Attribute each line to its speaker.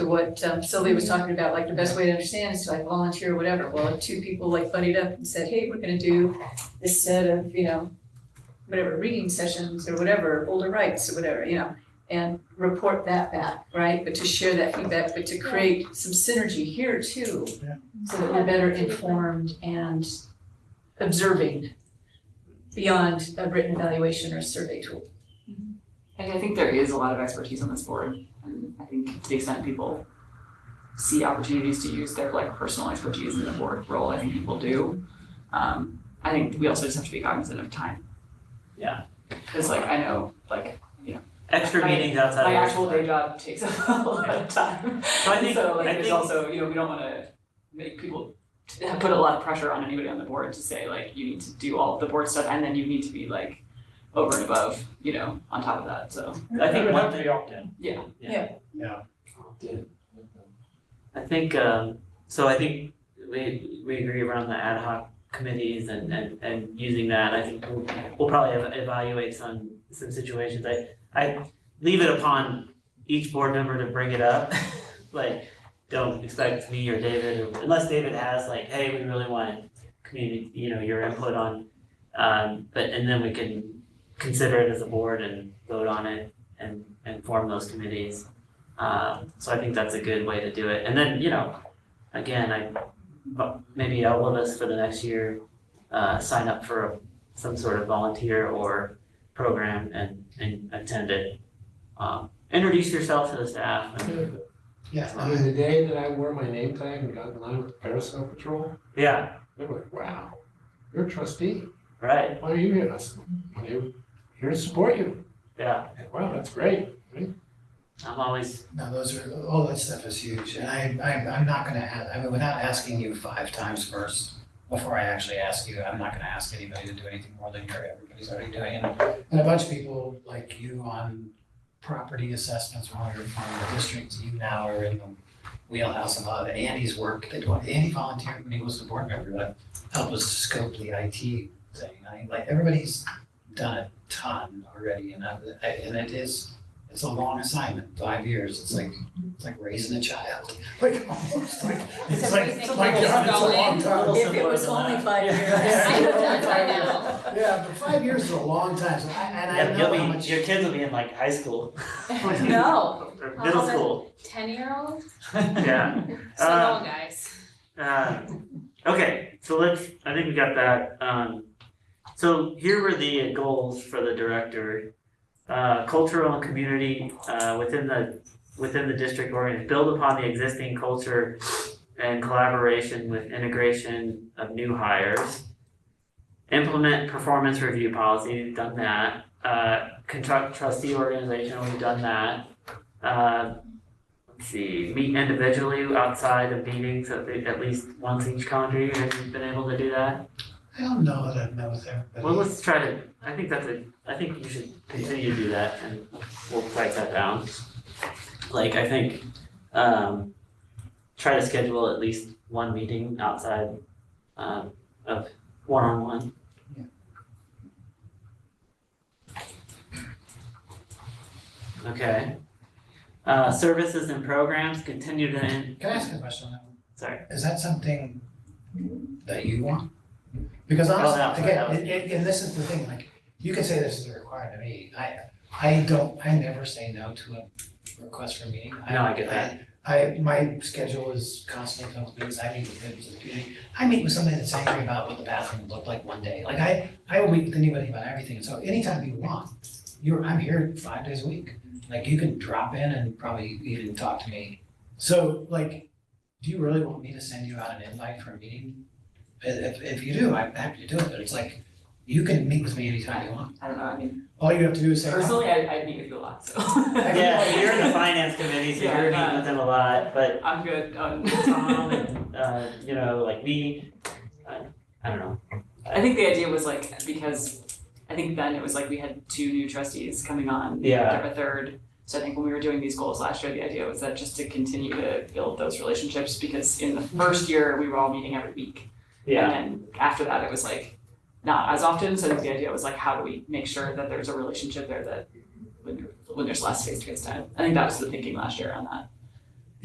Speaker 1: what um, Sylvia was talking about, like the best way to understand is to like volunteer or whatever. Well, if two people like buddied up and said, hey, we're gonna do this set of, you know, whatever, reading sessions or whatever, older rights or whatever, you know, and report that back, right? But to share that feedback, but to create some synergy here too.
Speaker 2: Yeah.
Speaker 1: So that we're better informed and observing beyond a written evaluation or survey tool.
Speaker 3: And I think there is a lot of expertise on this board, and I think to the extent people see opportunities to use their like personal expertise in the board role, I think people do. Um, I think we also just have to be cognizant of time.
Speaker 2: Yeah.
Speaker 3: Cause like I know, like
Speaker 2: Extra
Speaker 3: I-
Speaker 2: meetings outside of.
Speaker 3: my
Speaker 2: your-
Speaker 3: actual day job takes up a lot of time,
Speaker 2: So I think,
Speaker 3: so like
Speaker 2: I
Speaker 3: there's
Speaker 2: think-
Speaker 3: also, you know, we don't wanna make people t- put a lot of pressure on anybody on the board to say like, you need to do all of the board stuff and then you need to be like over and above, you know, on top of that, so.
Speaker 2: I think
Speaker 4: It would
Speaker 2: one
Speaker 4: have to
Speaker 2: thing-
Speaker 4: be opt-in.
Speaker 3: Yeah.
Speaker 1: Yeah.
Speaker 2: Yeah. I think, um, so I think we, we agree around the ad hoc committees and, and, and using that, I think we'll, we'll probably ev- evaluate some, some situations, I, I leave it upon each board member to bring it up, like, don't expect me or David, or unless David has like, hey, we really want community, you know, your input on, um, but, and then we can consider it as a board and vote on it and, and form those committees. Um, so I think that's a good way to do it. And then, you know, again, I, but maybe all of us for the next year, uh, sign up for some sort of volunteer or program and, and attend it. Um, introduce yourself to the staff and,
Speaker 4: Yeah, I mean, the day that I wore my name tag and got in line with the Parasol Patrol,
Speaker 2: yeah,
Speaker 4: they were like, wow, you're a trustee,
Speaker 2: right,
Speaker 4: why are you here? And I said, "Well, they're here to support you.
Speaker 2: yeah.
Speaker 4: And, Wow, that's great.
Speaker 2: I'm always,
Speaker 5: No, those are, all that stuff is huge, and I, I'm, I'm not gonna ask, I mean, without asking you five times first, before I actually ask you, I'm not gonna ask anybody to do anything more than you're, everybody's already doing, and, and a bunch of people like you on property assessments, when you're from the district, you now are in the wheelhouse of a lot of Andy's work, that Andy volunteered when he was a board member, to help us scope the IT thing, I, like, everybody's done a ton already, and I, I- and it is it's a long assignment, five years, it's like, it's like raising a child, like almost like, it's
Speaker 6: So
Speaker 5: like,
Speaker 6: raising
Speaker 5: my
Speaker 6: kids
Speaker 5: God, it's a
Speaker 6: going-
Speaker 5: long
Speaker 2: a
Speaker 5: time.
Speaker 2: little
Speaker 1: If it
Speaker 2: simpler
Speaker 1: was
Speaker 2: than
Speaker 1: only
Speaker 2: that.
Speaker 1: five
Speaker 2: Yeah.
Speaker 1: years.
Speaker 6: I know that by now.
Speaker 5: Yeah, but five years is a long time, so I, and I
Speaker 2: Yep, you'll
Speaker 5: know how much.
Speaker 2: be, your kids will be in like high school.
Speaker 6: No.
Speaker 2: Or
Speaker 6: I'll
Speaker 2: Middle
Speaker 6: have a-
Speaker 2: school,
Speaker 6: Ten-year-old?
Speaker 2: yeah.
Speaker 6: So
Speaker 2: Uh,
Speaker 6: long, guys.
Speaker 2: Um, okay, so let's, I think we got that, um, so here were the goals for the director. Uh, cultural and community, uh, within the, within the district organ, build upon the existing culture and collaboration with integration of new hires. Implement performance review policy, we've done that, uh, conduct trustee organization, we've done that. Uh, let's see, meet individually outside of meetings at, the- at least once each calendar year. Have you been able to do that?
Speaker 5: I don't know that I've met with
Speaker 2: Well,
Speaker 5: everybody.
Speaker 2: let's try to, I think that's a, I think you should continue to do that and we'll write that down. Like, I think, um, try to schedule at least one meeting outside, um, of one-on-one.
Speaker 5: Yeah.
Speaker 2: Okay. Uh, services and programs, continue to in-
Speaker 5: Can I ask a question on that one?
Speaker 2: Sorry.
Speaker 5: Is that something that you want? Because
Speaker 2: Oh, no,
Speaker 5: honestly,
Speaker 2: that
Speaker 5: again,
Speaker 2: was-
Speaker 5: it- it- and this is the thing, like, you can say this is a requirement to me, I, I don't, I never say no to a request for a meeting.
Speaker 2: No, I get that.
Speaker 5: I, my schedule is constantly filled with meetings, I meet with members of the community, I meet with somebody that's angry about what the bathroom looked like one day, like I, I will meet with anybody about everything, so anytime you want, you're, I'm here five days a week, like you can drop in and probably even talk to me. So like, do you really want me to send you out an invite for a meeting? If, if- if you do, I'm happy to do it, but it's like, you can meet with me anytime you want,
Speaker 3: I don't know, I mean,
Speaker 5: all you have to do is say. "Oh,
Speaker 3: personally, I, I meet with you a lot, so.
Speaker 2: Yeah, you're in the finance committee, so you're meeting with them a lot, but
Speaker 3: I'm good on
Speaker 2: Tom and, uh, you know, like me, I, I don't know.
Speaker 3: I think the idea was like, because I think then it was like we had two new trustees coming on.
Speaker 2: Yeah.
Speaker 3: or A third, so I think when we were doing these goals last year, the idea was that just to continue to build those relationships, because in the first year, we were all meeting every week. And then after that, it was like, not as often, so I think the idea was like, how do we make sure that there's a relationship there that when there, when there's less face-to-face time, I think that was the thinking last year on that.